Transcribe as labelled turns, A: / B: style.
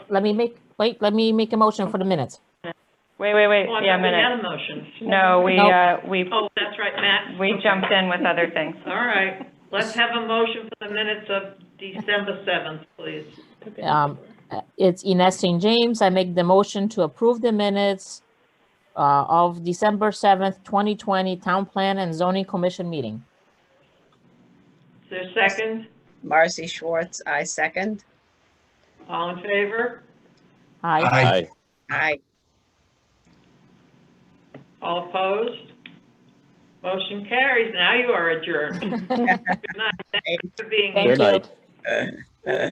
A: let me make, wait, let me make a motion for the minutes.
B: Wait, wait, wait,
C: Well, Oh, I
B: yeah,
C: thought we
B: minutes.
C: had a motion.
B: No, we,
A: Nope.
B: uh, we,
C: Oh, that's right, Matt.
B: we jumped in with other things.
C: All right, let's have a motion for the minutes of December seventh, please.
A: Um, uh, It's Ines St. James. I make the motion to approve the minutes uh, of December 7th, 2020 Town Plan and Zoning Commission meeting.
C: Is there a second?
D: Marcy Schwartz, I second.
C: All in favor?
A: Aye.
E: Aye.
D: Aye.
C: All opposed? Motion carries. Now you are adjourned. Good night. Thanks for being here.
A: Thank
E: Good
A: you.
E: night.